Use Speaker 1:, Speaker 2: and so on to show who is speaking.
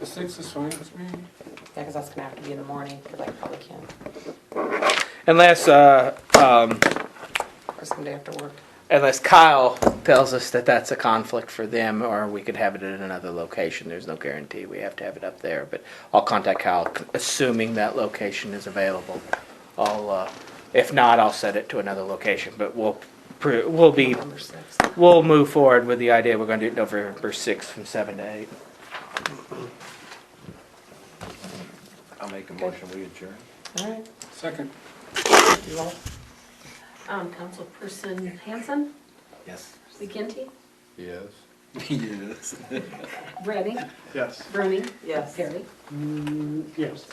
Speaker 1: The sixth is fine with me.
Speaker 2: Yeah, because that's gonna have to be in the morning, because I probably can't,
Speaker 3: Unless, uh,
Speaker 2: or someday after work.
Speaker 3: unless Kyle tells us that that's a conflict for them, or we could have it at another location. There's no guarantee we have to have it up there, but I'll contact Kyle, assuming that location is available. I'll, uh, if not, I'll set it to another location, but we'll, pr- we'll be,
Speaker 2: Number six.
Speaker 3: we'll move forward with the idea we're gonna do it November sixth from seven to eight.
Speaker 4: I'll make a motion, we adjourn.
Speaker 2: All right,
Speaker 1: Second.
Speaker 2: do you all?
Speaker 5: Um, Councilperson Hanson,
Speaker 4: Yes.
Speaker 5: McGinty,
Speaker 4: Yes. Yes.
Speaker 5: Redding,
Speaker 1: Yes.
Speaker 5: Bruni,
Speaker 2: Yes.
Speaker 5: Perry.
Speaker 1: Mm, Yes.